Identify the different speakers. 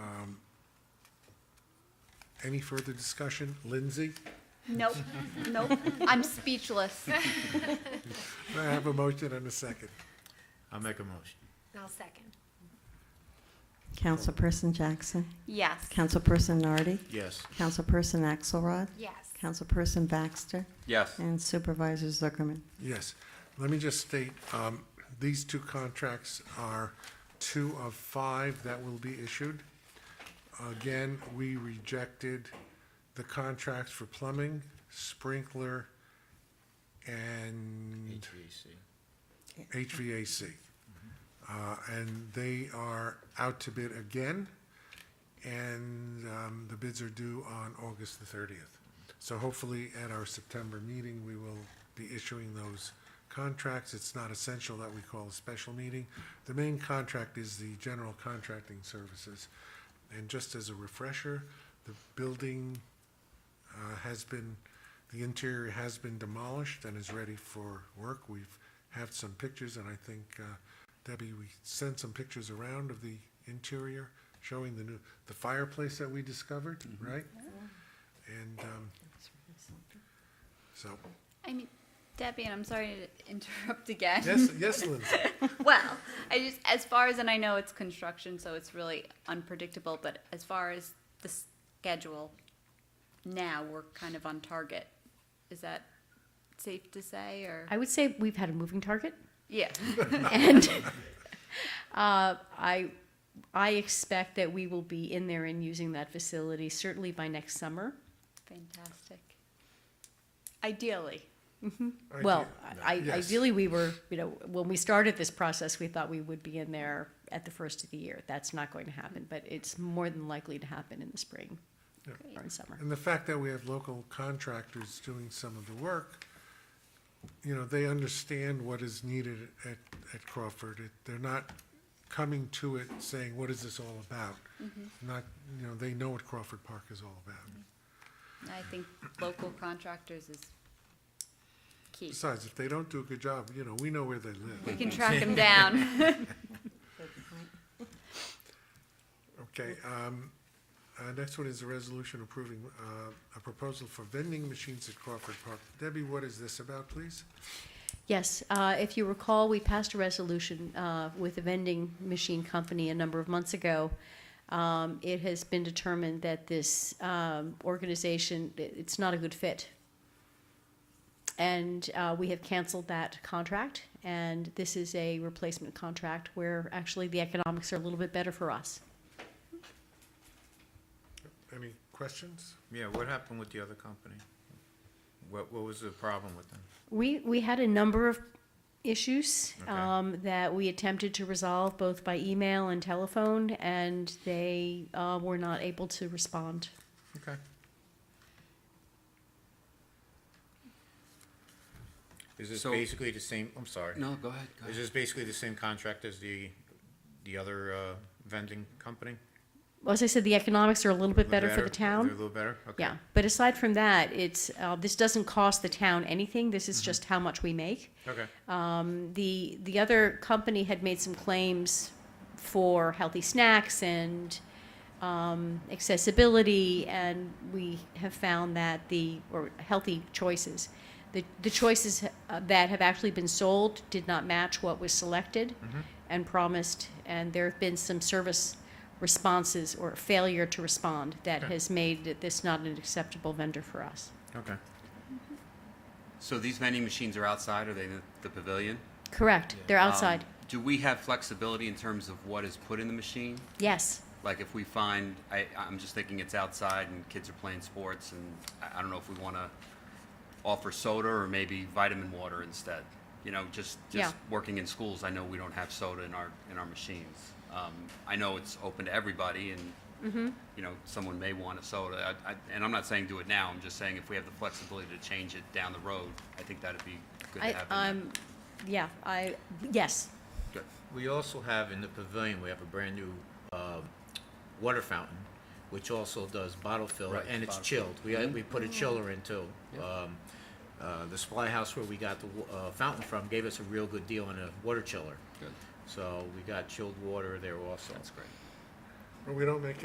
Speaker 1: Um, Any further discussion? Lindsay,
Speaker 2: Nope, nope, I'm speechless.
Speaker 1: I have a motion and a second.
Speaker 3: I'll make a motion.
Speaker 4: I'll second.
Speaker 5: Councilperson Jackson,
Speaker 2: Yes.
Speaker 5: Councilperson Nardi,
Speaker 3: Yes.
Speaker 5: Councilperson Axelrod,
Speaker 4: Yes.
Speaker 5: Councilperson Baxter,
Speaker 6: Yes.
Speaker 5: and Supervisor Zuckerman.
Speaker 1: Yes, let me just state, um, these two contracts are two of five that will be issued. Again, we rejected the contracts for plumbing, sprinkler, and
Speaker 3: HVAC.
Speaker 1: HVAC. Uh, And they are out to bid again, and um, the bids are due on August the 30th. So hopefully, at our September meeting, we will be issuing those contracts. It's not essential that we call a special meeting. The main contract is the general contracting services. And just as a refresher, the building uh, has been, the interior has been demolished and is ready for work. We've had some pictures, and I think, uh, Debbie, we sent some pictures around of the interior, showing the new, the fireplace that we discovered, right? And, um, so,
Speaker 2: I mean, Debbie, and I'm sorry to interrupt again.
Speaker 1: yes, yes, Lindsay,
Speaker 2: Well, I just, as far as, and I know it's construction, so it's really unpredictable, but as far as the schedule, now we're kind of on target. Is that safe to say, or?
Speaker 7: I would say we've had a moving target,
Speaker 2: Yeah,
Speaker 7: and uh, I I expect that we will be in there and using that facility certainly by next summer.
Speaker 2: fantastic. Ideally.
Speaker 1: I
Speaker 7: well,
Speaker 1: do.
Speaker 7: I,
Speaker 1: Yes.
Speaker 7: ideally we were, you know, when we started this process, we thought we would be in there at the first of the year. That's not going to happen, but it's more than likely to happen in the spring or in summer.
Speaker 1: And the fact that we have local contractors doing some of the work, you know, they understand what is needed at, at Crawford. It- They're not coming to it saying, what is this all about? Not, you know, they know what Crawford Park is all about.
Speaker 2: I think local contractors is key.
Speaker 1: Besides, if they don't do a good job, you know, we know where they
Speaker 2: We
Speaker 1: live.
Speaker 2: can track them down.
Speaker 1: Okay, um, uh, next one is a resolution approving, uh, a proposal for vending machines at Crawford Park. Debbie, what is this about, please?
Speaker 7: Yes, uh, if you recall, we passed a resolution uh, with a vending machine company a number of months ago. Um, It has been determined that this um, organization, i- it's not a good fit. And uh, we have canceled that contract, and this is a replacement contract where actually the economics are a little bit better for us.
Speaker 1: Any questions?
Speaker 3: Yeah, what happened with the other company? What, what was the problem with them?
Speaker 7: We, we had a number of issues
Speaker 3: Okay.
Speaker 7: um, that we attempted to resolve both by email and telephone, and they uh, were not able to respond.
Speaker 3: Okay. Is this
Speaker 6: So-
Speaker 3: basically the same, I'm sorry.
Speaker 6: No, go ahead, go
Speaker 3: Is
Speaker 6: ahead.
Speaker 3: this basically the same contract as the, the other uh, vending company?
Speaker 7: Well, As I said, the economics are a little bit
Speaker 3: Little
Speaker 7: better for the
Speaker 3: They're A
Speaker 7: town.
Speaker 3: little better? Okay.
Speaker 7: Yeah, but aside from that, it's, uh, this doesn't cost the town anything, this
Speaker 3: Mm-hmm.
Speaker 7: is just how much we make.
Speaker 3: Okay,
Speaker 7: Um, The, the other company had made some claims for healthy snacks and um, accessibility, and we have found that the, or healthy choices, the, the choices uh, that have actually been sold did not match what was selected and promised, and there have been some service responses or failure to respond that
Speaker 3: Okay.
Speaker 7: has made this not an acceptable vendor for us.
Speaker 3: okay.
Speaker 6: So these vending machines are outside, are they in the pavilion?
Speaker 7: Correct, they're
Speaker 6: Um,
Speaker 7: outside,
Speaker 6: Do we have flexibility in terms of what is put in the machine?
Speaker 7: yes.
Speaker 6: Like if we find, I, I'm just thinking it's outside and kids are playing sports and I, I don't know if we want to offer soda or maybe vitamin water instead. You know, just, just
Speaker 7: Yeah.
Speaker 6: working in schools, I know we don't have soda in our, in our machines. Um, I know it's open to everybody
Speaker 7: Mm-hmm.
Speaker 6: and, you know, someone may want a soda. I, I, and I'm not saying do it now, I'm just saying if we have the flexibility to change it down the road, I think that'd be good to
Speaker 7: I,
Speaker 6: have. in there.
Speaker 7: I'm, yeah, I, yes,
Speaker 6: Good.
Speaker 3: We also have in the pavilion, we have a brand-new water fountain, which also does bottle fill,
Speaker 6: Right,
Speaker 3: and it's
Speaker 6: bottle fill.
Speaker 3: chilled. We, uh, we put a chiller in too. Um, uh, The supply house where we got the wa- uh, fountain from gave us a real good deal on a water chiller.
Speaker 6: Good.
Speaker 3: So we got chilled water there also.
Speaker 6: That's great.
Speaker 1: We don't make any